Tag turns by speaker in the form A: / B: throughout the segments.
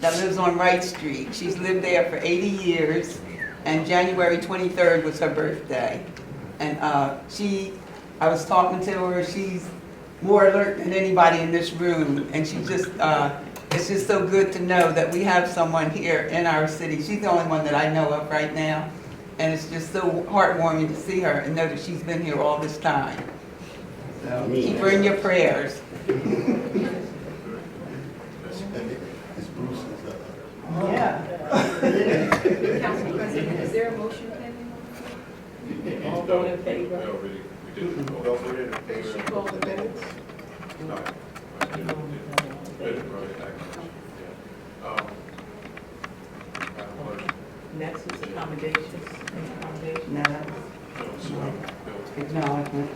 A: that lives on Wright Street. She's lived there for 80 years, and January 23rd was her birthday. And uh, she, I was talking to her, she's more alert than anybody in this room, and she just, uh, it's just so good to know that we have someone here in our city. She's the only one that I know of right now, and it's just so heartwarming to see her and know that she's been here all this time. So keep her in your prayers.
B: It's Bruce. is up.
A: Yeah.
C: Council President, is there a motion pending?
D: All those in favor? No, we didn't- we didn't. vote.
C: They should go over the minutes.
D: No, I didn't- didn't. Better vote it back. Yeah. Um, I have a motion.
E: Next is accommodations, accommodations.
A: No, that was
D: No, so, um, no.
A: acknowledgement.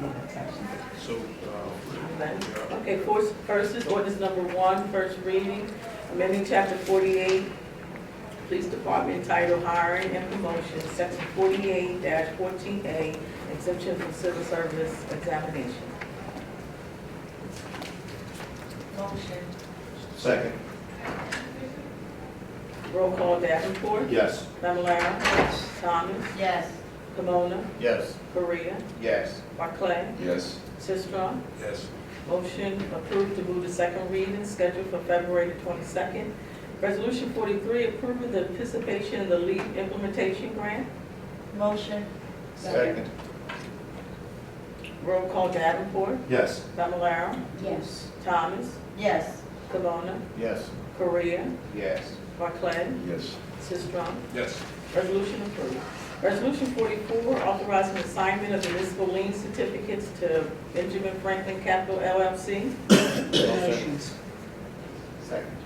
A: No, that's actually-
D: So, um,
E: Okay, first, first is ordinance number one, first reading, amending chapter forty-eight, police department title hiring and promotion, section forty-eight fourteen A, exemption from civil service examination.
C: Motion.
B: Second.
E: Roll call Davenport,
B: Yes.
E: Fablelaro, Thomas,
C: Yes.
E: Pomona,
B: Yes.
E: Korea,
B: Yes.
E: Barclay,
D: Yes.
E: Sistrum.
D: Yes.
E: Motion approved to move to second reading, scheduled for February the twenty-second. Resolution forty-three, approving the participation in the LEAP implementation grant.
C: Motion.
B: Second.
E: Roll call Davenport,
B: Yes.
E: Fablelaro,
C: Yes.
E: Thomas,
C: Yes.
E: Camona,
B: Yes.
E: Korea,
B: Yes.
E: Barclay,
B: Yes.
E: Sistrum.
D: Yes.
E: Resolution approved. Resolution forty-four, authorizing assignment of municipal lien certificates to Benjamin Franklin Capital LLC.
B: Second.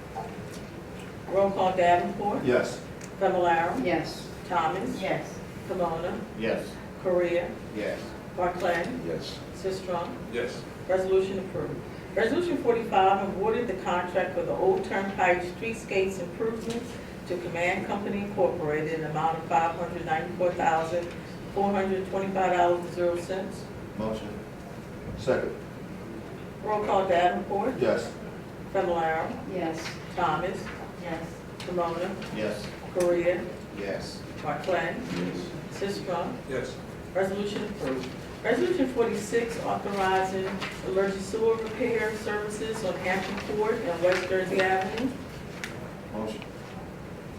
E: Roll call Davenport,
B: Yes.
E: Fablelaro,
C: Yes.
E: Thomas,
C: Yes.
E: Camona,
B: Yes.
E: Korea,
B: Yes.
E: Barclay,
B: Yes.
E: Sistrum.
D: Yes.
E: Resolution approved. Resolution forty-five, awarded the contract for the Old Turnpike Streetscapes Improvements to Command Company Incorporated in the amount of five hundred ninety-four thousand, four hundred twenty-five dollars and zero cents.
B: Motion. Second.
E: Roll call Davenport,
B: Yes.
E: Familar,
C: Yes.
E: Thomas,
C: Yes.
E: Kimona,
B: Yes.
E: Korea,
B: Yes.
E: Barclay, Sistrum.
D: Yes.
E: Resolution approved. Resolution forty-six, authorizing emergency sewer repair services on Hampton Court and West Jersey Avenue.
B: Motion.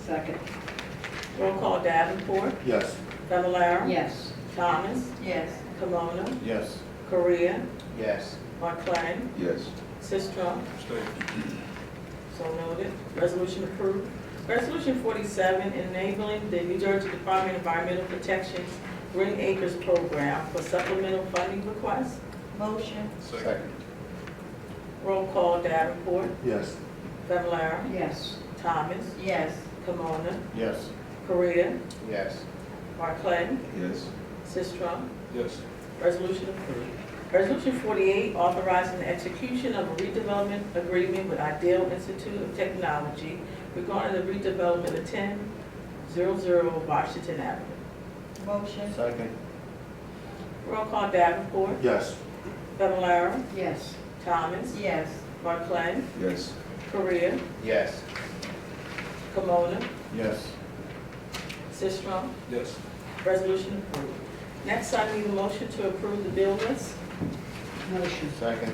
C: Second.
E: Roll call Davenport,
B: Yes.
E: Fablelaro.
C: Yes.
E: Thomas,
C: Yes.
E: Kimona,
B: Yes.
E: Korea,
B: Yes.
E: Barclay,
B: Yes.
E: Sistrum,
D: Stay.
E: so noted. Resolution approved. Resolution forty-seven, enabling the New Jersey Department of Environmental Protection's Green Acres Program for supplemental funding requests.
C: Motion.
D: Second.
E: Roll call Davenport,
B: Yes.
E: Fablelaro,
C: Yes.
E: Thomas,
C: Yes.
E: Kimona,
B: Yes.
E: Korea,
B: Yes.
E: Barclay,
B: Yes.
E: Sistrum,
D: Yes.
E: Resolution approved. Resolution forty-eight, authorizing the execution of a redevelopment agreement with Ideal Institute of Technology regarding the redevelopment of ten zero zero Washington Avenue.
C: Motion.
B: Second.
E: Roll call Davenport,
B: Yes.
E: Fablelaro,
C: Yes.
E: Thomas,
C: Yes.
E: Barclay,
B: Yes.
E: Korea,
B: Yes.
E: Kimona,
B: Yes.
E: Sistrum.
D: Yes.
E: Resolution approved. Next, I need a motion to approve the bill list.
C: Motion.
B: Second.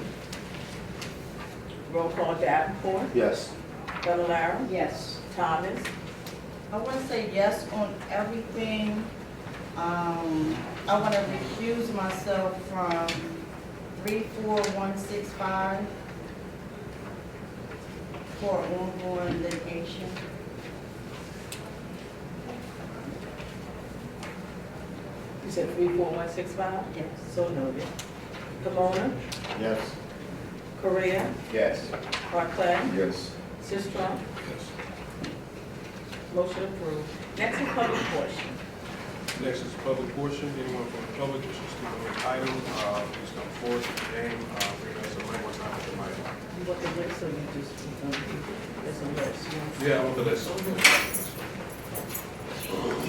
E: Roll call Davenport,
B: Yes.
E: Fablelaro,
C: Yes.
E: Thomas,
C: I want to say yes on everything. Um, I want to recuse myself from three, four, one, six, five for ongoing litigation.
E: you said three four one six five,
C: Yes.
E: so noted. Kimona,
B: Yes.
E: Korea,
B: Yes.
E: Barclay,
B: Yes.
E: Sistrum,
D: Yes.
E: motion approved. Next is public portion.
D: Next is public portion, anyone from the public wishing to speak on this item, uh, please come forward, State your name, uh, recognize the mic, what's not with the mic.
E: You want the list, so you just, um, there's a list. you want-
D: Yeah, I want the list.